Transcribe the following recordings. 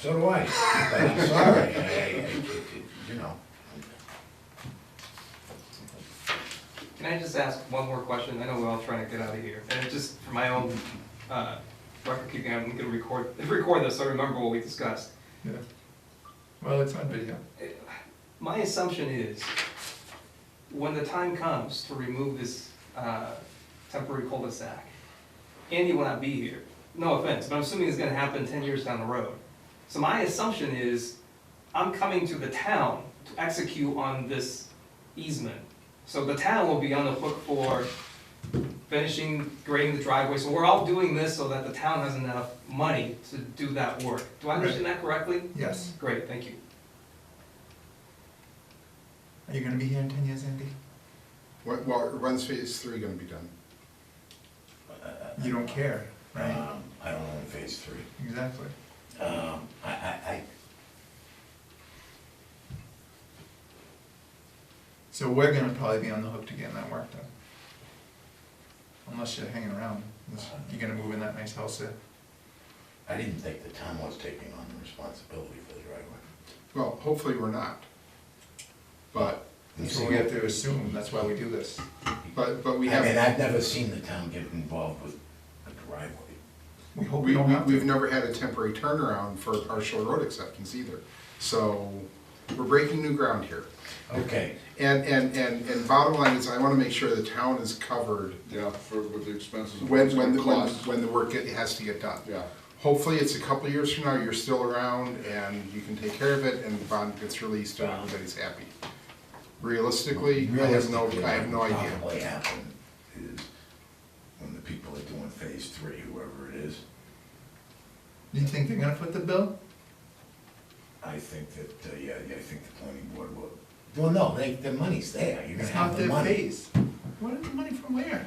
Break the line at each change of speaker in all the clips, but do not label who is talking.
So do I, but I'm sorry, I- I- I- you know.
Can I just ask one more question? I know we're all trying to get out of here, and it's just for my own uh, record keeping, I'm gonna record, record this, so I remember what we discussed.
Yeah. Well, it's on video.
My assumption is, when the time comes to remove this uh, temporary cul-de-sac, Andy will not be here. No offense, but I'm assuming it's gonna happen ten years down the road. So my assumption is, I'm coming to the town to execute on this easement. So the town will be on the hook for finishing grading the driveway, so we're all doing this so that the town has enough money to do that work. Do I understand that correctly?
Yes.
Great, thank you.
Are you gonna be here in ten years, Andy?
When- Well, when's phase three gonna be done?
You don't care, right?
uh, Um, I don't know, in phase three.
Exactly.
Um, I, I,
So we're gonna probably be on the hook to getting that work done. Unless you're hanging around, unless you're gonna move in that nice house there.
I, I didn't think the town was taking on the responsibility for the driveway.
Well, hopefully we're not. But,
That's what we have to assume, that's why we do this.
but, but we
I mean,
have,
I've never seen the town get involved with a driveway.
We hope we
we,
don't
we-
have
we've
to.
never had a temporary turnaround for partial road acceptance either. So, we're breaking new ground here.
Okay,
And, and, and, and bottom line is, I wanna make sure the town is covered
Yeah, for, with the expenses. and
when, when, the- when,
costs.
when the work get- has to get done.
Yeah,
Hopefully, it's a couple of years from now, you're still around and you can take care of it and the bond gets released and everybody's happy. Realistically, I have no, I have no
Realistically,
idea.
what Probably happened is when the people are doing phase three, whoever it is,
Do you think they're gonna foot the bill?
I think that, uh, yeah, yeah, I think the planning board will. Well, no, they, the money's there, you're gonna
It's not
have the
their
money.
phase. What, the money from where?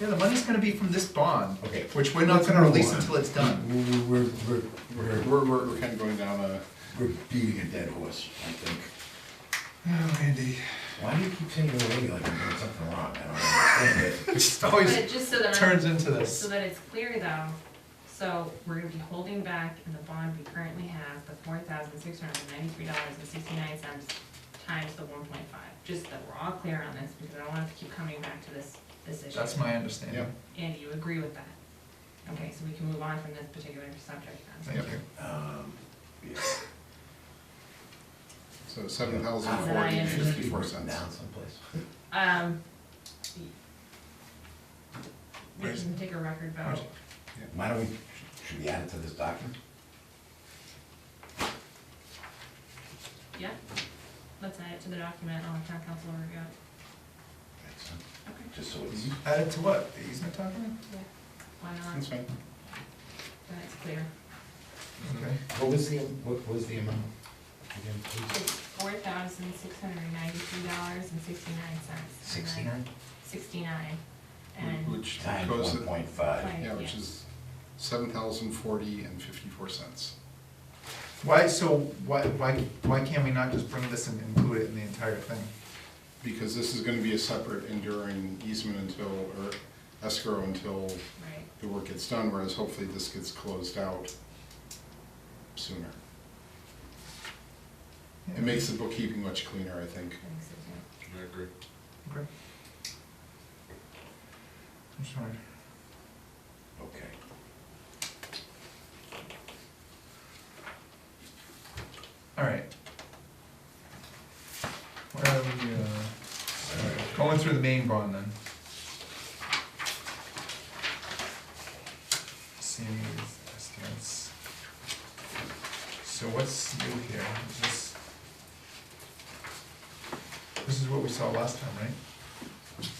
Yeah, the money's gonna be from this bond,
Okay.
which we're not gonna release until it's done.
We're, we're, we're, we're-
We're, we're, we're kind of going down a,
we're beating a dead horse, I think.
Oh, Andy.
Why do you keep saying you're lady like I'm doing something wrong? I don't understand
It
it.
just
But
always
just so that,
turns
I'm-
into
so
this.
that it's clear though, so we're gonna be holding back in the bond we currently have, the four thousand six hundred and ninety-three dollars and sixty-nine cents times the one point five, just that we're all clear on this, because I don't want to keep coming back to this, this issue.
That's my understanding.
Yep.
Andy, you agree with that? Okay, so we can move on from this particular subject then.
Thank you.
Um, yeah.
so seven thousand
Thousand
four
nine
hundred and
hundred.
fifty-four
Written
cents.
Down someplace.
Um. We
Where's-
can take a record
where's-
vote.
Why don't we, should we add it to this document?
Yeah? Let's add it to the document on town council review.
That's, uh,
Okay.
Just so it's,
Added to what? The easement document?
Yeah. Why not?
That's fine.
Then it's clear.
Okay.
Mm-hmm. what was the, what was the amount? Again, please?
It's four thousand six hundred and ninety-three dollars and sixty-nine cents.
Sixty-nine?
Sixty-nine, and,
Which
Times
goes,
one point five.
Right.
yeah, which is seven thousand forty and fifty-four cents.
Why, so why, why, why can't we not just bring this and include it in the entire thing?
Because this is gonna be a separate enduring easement until, or escrow until
right,
the work gets done, whereas hopefully this gets closed out sooner. It makes the bookkeeping much cleaner, I think.
I think so too.
I agree.
Okay. I'm sorry.
Okay.
All right. Where are we, uh, all right, going through the main bond then? See, that's, that's. So what's new here? Is This This is what we saw last time, right?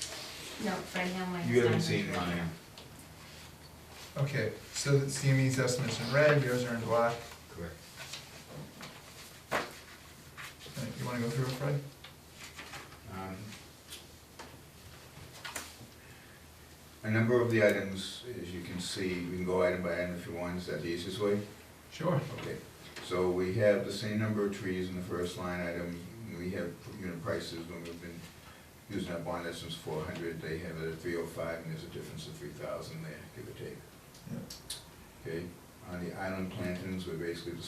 No, right now mine's.
You haven't
not
seen
right
mine.
Okay, so the CME's estimates in red, yours are in black.
Correct.
Uh, You wanna go through it, Fred?
Um, A number of the items, as you can see, we can go item by item if you want, is that the easiest way?
Sure.
Okay, so we have the same number of trees in the first line item, we have unit prices, when we've been using that bond essence four hundred, they have it at three oh five, and there's a difference of three thousand there, give or take.
Yeah.
Okay, on the island plantings, we're basically the